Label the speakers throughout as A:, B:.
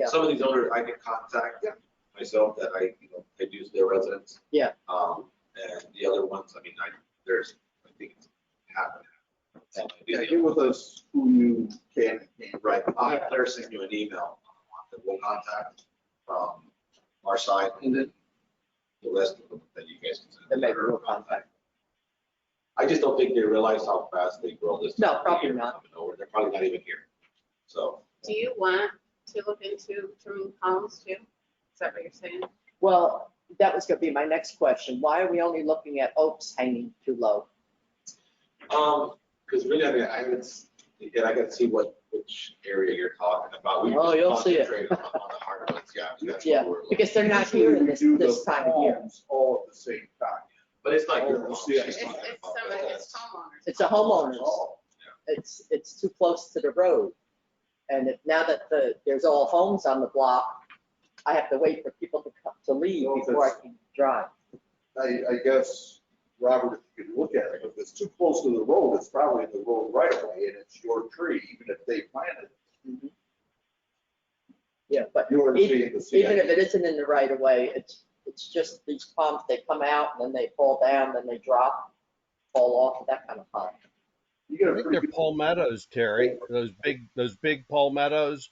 A: Yeah.
B: Some of these owners I can contact myself that I, you know, I use their residence.
A: Yeah.
B: Um, and the other ones, I mean, I, there's, I think it's happening.
C: Yeah, get with us who you can.
B: Right, I'll have Claire send you an email um, that we'll contact from our side and then the rest of them that you guys can. send.
A: That maybe we'll contact.
B: I just don't think they realize how fast they grow this.
A: No, probably
B: year
A: not.
B: coming over. They're probably not even here. So,
D: Do you want to look into through homes too? Is that what you're saying?
A: Well, that was gonna be my next question. Why are we only looking at oaks hanging too low?
B: um, because really, I mean, I would, s- yeah, I could see what, which area you're talking about. We
A: Oh,
B: just
A: you'll see it.
B: concentrate On on the hard ones, yeah. that's what
A: Yeah,
B: we're looking-
A: Because they're not here in this,
C: Usually we do
A: this
C: the
A: time of year.
C: homes All at the same time.
B: But it's not your
C: Oh,
B: fault.
C: see, I
B: She's
D: It's,
C: see.
B: talking
D: it's
B: about
D: somebody,
B: that.
D: it's homeowners.
A: It's a homeowner's.
C: All.
A: It's, it's too close to the road. And if, now that the, there's all homes on the block, I have to wait for people to come, to leave
C: Well,
A: before I can drive.
C: I, I guess, Robert, if you could look at it, if it's too close to the road, it's probably in the road right away and it's your tree, even if they planted it.
A: Yeah, but
C: You're
A: Even-
C: seeing the
A: even if
C: CIP.
A: it isn't in the right of way, it's, it's just these palms, they come out and then they fall down, then they drop, fall off, that kind of pond.
C: You get
E: I
C: a
E: think
C: pretty
E: they're
C: good-
E: palmettos, Terry. Those big, those big palmettos.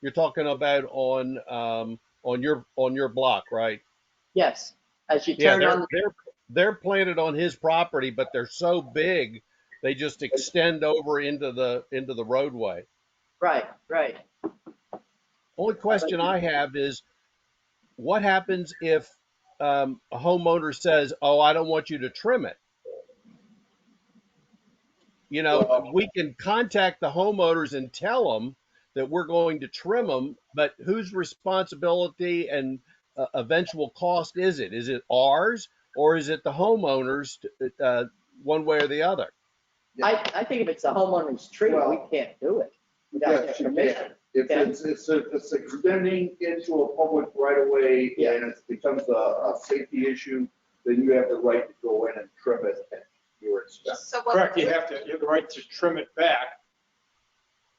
E: You're talking about on, um, on your, on your block, right?
A: Yes, as you
E: Yeah,
A: turn on,
E: they're, they're, they're planted on his property, but they're so big, they just extend over into the, into the roadway.
A: right, right.
E: Only question I have is, what happens if, um, a homeowner says, oh, I don't want you to trim it? You know, we can contact the homeowners and tell them that we're going to trim them, but whose responsibility and uh, eventual cost is it? Is it ours or is it the homeowners, uh, one way or the other?
A: I, I think if it's a homeowner's tree, we
C: Well-
A: can't do it without their
C: Yes, you
A: permission.
C: can. If
A: Yeah.
C: it's, it's, it's extending into a public right of way
A: Yeah.
C: and it becomes a, a safety issue, then you have the right to go in and trim it at your expense.
D: So what?
F: Correct, you have to, you have the right to trim it back,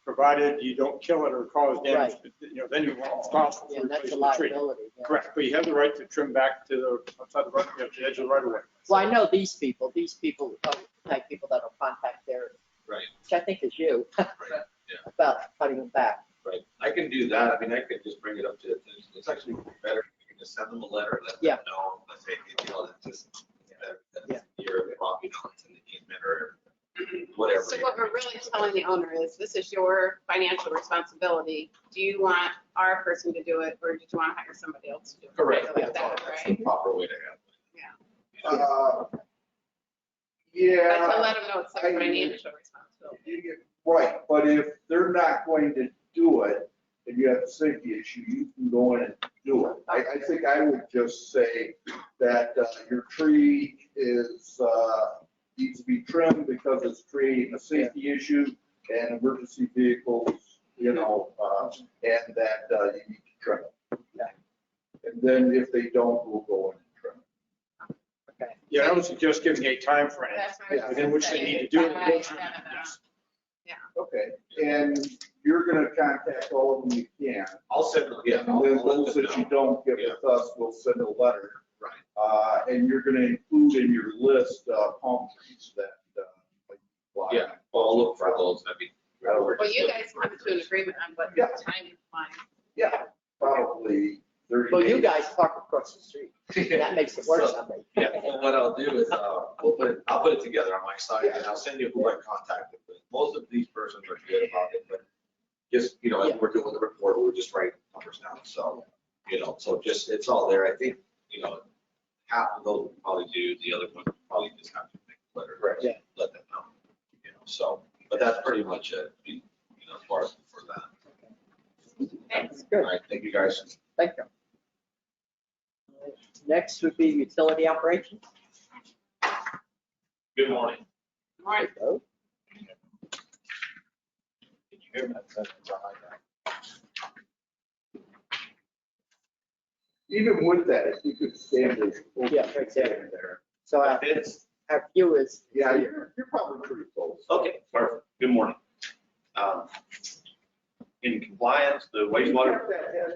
F: provided you don't kill it or cause damage, but, you know, then you're responsible
A: Yeah,
F: for
A: that's a
F: replacing the tree.
A: liability. yeah.
F: Correct, but you have the right to trim back to the, outside the right, you know, to the edge of the right of way.
A: Well, I know these people, these people, are the type of people that'll contact their,
B: Right.
A: which I think is you,
B: Right, yeah.
A: about cutting them back.
B: Right, I can do that, I mean, I could just bring it up to, it's- it's actually better, if you can just send them a letter, let
A: Yeah.
B: them know, let's say, you know, that this, that-
A: Yeah.
B: that's your property, you know, it's in the easement or whatever.
D: So what we're really telling the owner is, this is your financial responsibility. Do you want our person to do it, or did you want to hire somebody else to do it?
B: Correct,
D: Something
B: that's,
D: Like that,
B: that's the
D: right?
B: proper way to handle it.
D: Yeah.
B: You know,
C: Uh,
D: But to
C: Yeah,
D: let them know it's their financial responsibility.
C: you get- right, but if they're not going to do it and you have a safety issue, you can go in and do it. I, I think I would just say that uh, your tree is, uh, needs to be trimmed because it's creating a safety issue and emergency vehicles, you know, uh, and that uh, you need to trim it. And then if they don't, we'll go in and trim it.
A: Okay,
F: Yeah, I was just giving you a timeframe
D: That's what I was
F: within which they
D: saying.
F: need to do it.
D: By-
F: We'll
D: da,
F: trim
D: da, da.
F: it.
C: Okay, and you're gonna contact all of them you can.
B: I'll send them, yeah.
C: And
B: I'll-
C: then
B: I'll let
C: those
B: them
C: that you
B: know.
C: don't get with us, we'll send a letter.
B: Right.
C: Uh, and you're gonna include in your list, uh, palm trees that, uh, like. fly.
B: Yeah, well, I'll look for those, I mean.
C: That'll work.
D: Well, you guys come to an agreement on what
C: Yeah.
D: time you want.
C: Yeah, probably thirty.
A: well, you
C: days.
A: guys park across the street, and that makes it worse, I think.
B: Yeah, well, what I'll do is, uh, we'll put it, I'll put it together on my side, and I'll send you who I contacted with. Most of these persons are good about it, but just, you know,
A: Yeah.
B: as we're doing the report, we're just writing numbers down, so, you know, so just, it's all there, I think, you know, half of those will probably do, the other one will probably just have to make a letter.
A: Yeah.
B: Let them know, you know, so, but that's pretty much it, you know, as far as for that.
D: Thanks.
A: Good.
B: All right, thank you guys.
A: Thank you. Next would be utility operations.
G: Good morning.
D: Lauren,
A: Oh,
G: Can you hear me?
C: Even with that, if you could stand it. we'll
A: Yeah, right there.
C: stand there.
A: So our,
G: It's,
A: our view is,
C: Yeah,
B: Oh,
C: you're, you're probably pretty close.
G: okay, perfect. Good morning. Um,
B: in compliance, the wastewater
C: Kept that head